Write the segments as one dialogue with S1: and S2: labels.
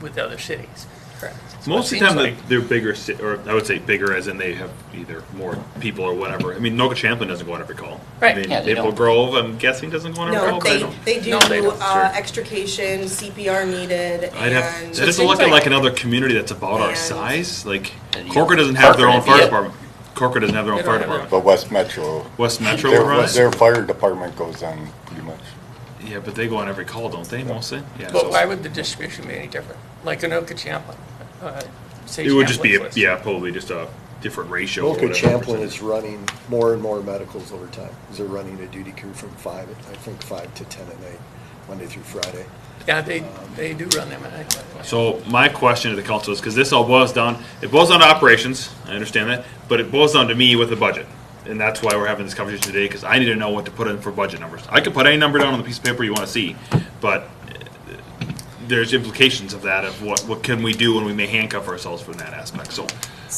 S1: with other cities.
S2: Correct.
S1: That's what
S3: Most of
S1: it
S3: the time,
S1: seems
S3: they're- they're bigger, ci- or I would say bigger as in they have either more people or whatever. I mean, Noka Champlin doesn't go on every call.
S1: Right,
S3: I mean,
S4: yeah, they
S3: Maple
S4: don't.
S3: Grove, I'm guessing, doesn't go on every
S2: No,
S3: call. 'cause I
S2: they,
S3: don't-
S2: they do
S1: No, they don't,
S2: uh,
S3: sure.
S2: extrication, CPR needed,
S3: I'd have,
S2: and.
S3: that doesn't
S1: seems
S3: look at
S1: like-
S3: like another community that's about our
S2: And-
S3: size, like
S4: And you-
S3: Corker doesn't have their own
S4: Corcoran,
S3: fire
S4: yeah.
S3: department. Corker doesn't have their
S1: They
S3: own
S1: don't
S3: fire
S1: have
S3: department.
S5: But West Metro.
S3: West Metro
S5: their-
S3: runs?
S5: Their fire department goes on pretty much.
S3: Yeah, but they go on every call, don't they, mostly? Yeah.
S1: But
S3: so-
S1: why would the distribution be any different? Like Anoka Champlin, uh, say
S3: It would just be, a-
S1: Champlin's list.
S3: yeah, probably just a different ratio. or
S6: Boca
S3: whatever
S6: Champlin
S3: percentage.
S6: is running more and more medicals over time. 'cause They're running a duty crew from five, I think five to ten at night, Monday through Friday.
S1: Yeah, they, they do run them, and I,
S3: So my question to the council is, because this all boils down, it boils down to operations, I understand that, but it boils down to me with the budget. And that's why we're having this conversation today, because I need to know what to put in for budget numbers. I could put any number down on the piece of paper you want to see, but uh, there's implications of that, of what, what can we do when we may handcuff ourselves from that aspect, so.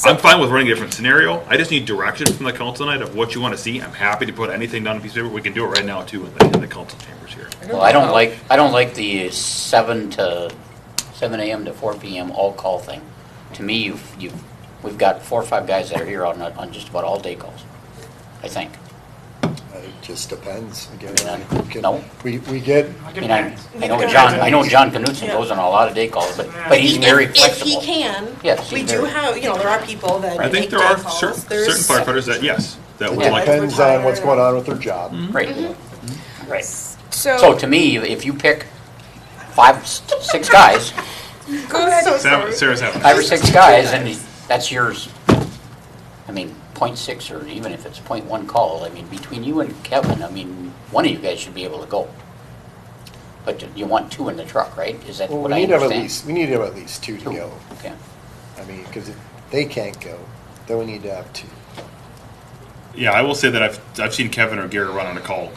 S3: I'm fine with running a different scenario, I just need direction from the council tonight of what you want to see, I'm happy to put anything down on a piece of paper, we can do it right now too in the, in the council chambers here.
S4: Well, I don't
S1: know.
S4: like, I don't like the seven to, seven AM to four PM all call thing. To me, you've, you've, we've got four or five guys that are here on, on just about all day calls, I think.
S6: Uh, It just depends, again.
S4: Yeah.
S6: we can-
S4: No.
S6: We, we get,
S4: I mean, I, I know John, I know John Knutson goes on a lot of day calls, but, but he's
S2: If-
S4: very
S2: If
S4: flexible.
S2: he can.
S4: Yes,
S2: We
S4: he's
S2: do
S4: very-
S2: have, you know, there are people that
S3: I think
S2: make
S3: there
S2: day
S3: are
S2: calls.
S3: certain, certain
S2: There's-
S3: firefighters that, yes, that would
S6: it
S3: like.
S6: depends on what's going on with their job.
S4: Right, right. So
S7: So,
S4: to me, if you pick five, s- six guys,
S7: go ahead.
S2: So
S3: Sarah-
S2: sorry.
S3: Sarah's having.
S4: five or six guys, and that's yours. I mean, point six, or even if it's point one call, I mean, between you and Kevin, I mean, one of you guys should be able to go. But you want two in the truck, right? Is that
S6: Well,
S4: what
S6: we
S4: I
S6: need to have at
S4: understand?
S6: least, we need to have at least two to
S4: Two.
S6: go.
S4: Okay.
S6: I mean, because if they can't go, then we need to have two.
S3: Yeah, I will say that I've, I've seen Kevin or Gary run on a call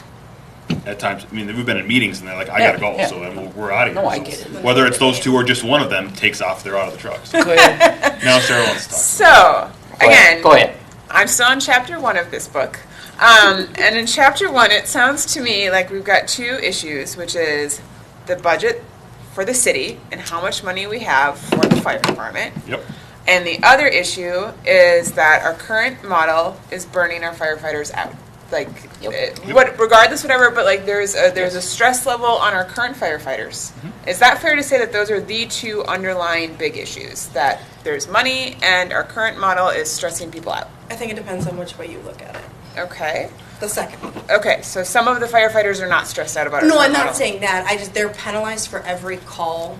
S3: at times. I mean, we've been in meetings and they're like, I
S4: Yeah,
S3: gotta go,
S4: yeah.
S3: so then we're- we're out of here.
S4: No, I
S3: So
S4: get it.
S3: Whether it's those two or just one of them takes off, they're out of the truck. So
S1: Go ahead.
S3: Now Sarah wants to talk.
S7: So,
S4: Go ahead,
S7: again,
S4: Go ahead.
S7: I'm still on chapter one of this book. Um, and in chapter one, it sounds to me like we've got two issues, which is the budget for the city and how much money we have for the fire department.
S3: Yep.
S7: And the other issue is that our current model is burning our firefighters out. Like,
S4: Yep.
S7: eh, what, regardless, whatever, but like there's a, there's a stress level on our current firefighters.
S2: Mm-hmm.
S7: Is that fair to say that those are the two underlying big issues? That there's money and our current model is stressing people out?
S2: I think it depends on which way you look at it.
S7: Okay,
S2: The second one.
S7: okay, so some of the firefighters are not stressed out about our
S2: No,
S7: current
S2: I'm not
S7: model.
S2: saying that. I just, they're penalized for every call.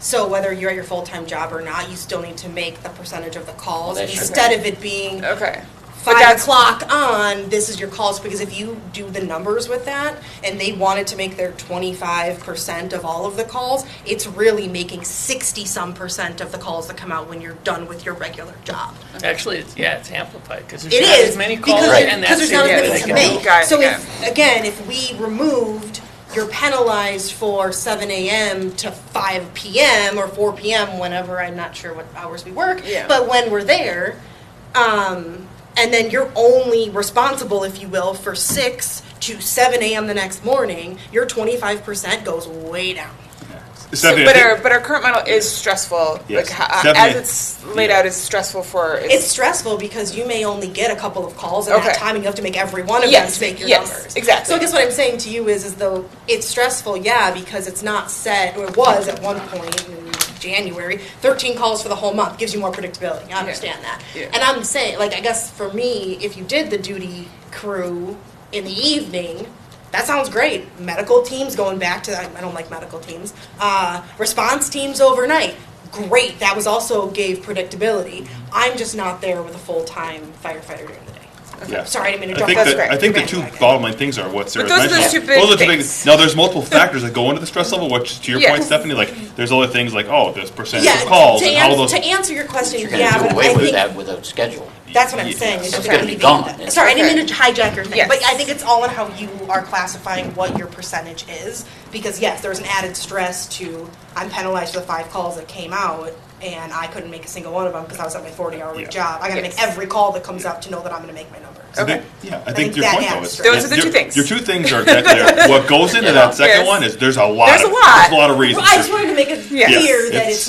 S2: So whether you're at your full-time job or not, you still need to make the percentage of the calls
S4: Well, that should
S2: instead of it being
S7: Okay. But
S2: five
S7: that's-
S2: o'clock on, this is your calls, because if you do the numbers with that, and they wanted to make their twenty-five percent of all of the calls, it's really making sixty-some percent of the calls that come out when you're done with your regular job.
S1: Actually, it's, yeah, it's amplified because there's
S2: It
S1: not as
S2: is,
S1: many
S2: because,
S1: calls
S4: Right.
S1: and
S2: because
S1: that's
S2: there's not
S7: it.
S2: as
S7: Yeah,
S2: many
S7: they
S2: to
S7: can
S2: make.
S7: do.
S2: So
S7: Got it,
S2: if, again, if we removed, you're penalized for seven AM to five PM or four PM, whenever, I'm not sure what hours we work.
S7: Yeah.
S2: But when we're there, um, and then you're only responsible, if you will, for six to seven AM the next morning, your twenty-five percent goes way down.
S3: Stephanie, I
S7: but
S3: think-
S7: our but our current model is stressful.
S3: Yes.
S7: Like, ho-
S3: Stephanie-
S7: as it's laid out, is stressful for
S2: It's stressful because you may only get a couple of calls at that
S7: Okay.
S2: time, and you have to make every one of
S7: Yes,
S2: them make your
S7: yes,
S2: numbers.
S7: exactly.
S2: So I guess what I'm saying to you is, is though it's stressful, yeah, because it's not set, or it was at one point in January, 13 calls for the whole month gives you more predictability. I understand that.
S7: Yeah.
S2: And I'm saying, like, I guess for me, if you did the duty crew in the evening. That sounds great. Medical teams going back to I I don't like medical teams. Uh, response teams overnight. Great. That was also gave predictability. I'm just not there with a full time firefighter during the day.
S3: Yeah.
S2: Sorry, I didn't mean to
S3: I
S2: jump
S3: think
S2: off
S7: that's
S3: that-
S7: great.
S3: I think the
S2: Your
S3: two
S2: bandwagon.
S3: bottom line things are what Sarah's
S7: those are the
S3: mentioning.
S7: two big
S3: are the big-
S7: things.
S3: Now, there's multiple factors that go into the stress level, which to your
S7: Yeah.
S3: point, Stephanie, like, there's other things like, oh, there's percentage
S2: Yeah,
S3: of calls
S2: to,
S3: and all
S2: ans-
S3: those.
S2: to answer your question,
S4: You're
S2: yeah,
S4: gonna
S2: but
S4: do
S2: I
S4: away with
S2: think
S4: that with a schedule.
S2: that's what I'm saying.
S3: Yes.
S2: is
S4: It's
S2: that
S4: gonna
S2: we
S4: be
S2: need to-
S4: gone.
S2: Sorry, I didn't mean
S7: Okay.
S2: to hijack your thing,
S7: Yes.
S2: but I think it's all in how you are classifying what your percentage is. Because yes, there's an added stress to I'm penalized for the five calls that came out, and I couldn't make a single one of them because I was at my 40-hour week
S3: Yeah.
S2: job. I got to
S7: Yes.
S2: make every call that comes up to know that I'm going to make my numbers.
S3: So
S7: Okay.
S3: they- Yeah, I think your
S2: that
S3: point though
S2: adds
S3: is.
S2: to it.
S7: Those are the
S3: your-
S7: two things.
S3: Your two things are that there. What goes into that second
S7: Yes.
S3: one is there's a lot.
S7: There's
S3: of-
S7: a lot.
S3: There's a lot of
S2: Well,
S3: reasons.
S2: I just wanted to make it
S7: Yes.
S2: clear that
S3: Yes.
S2: it's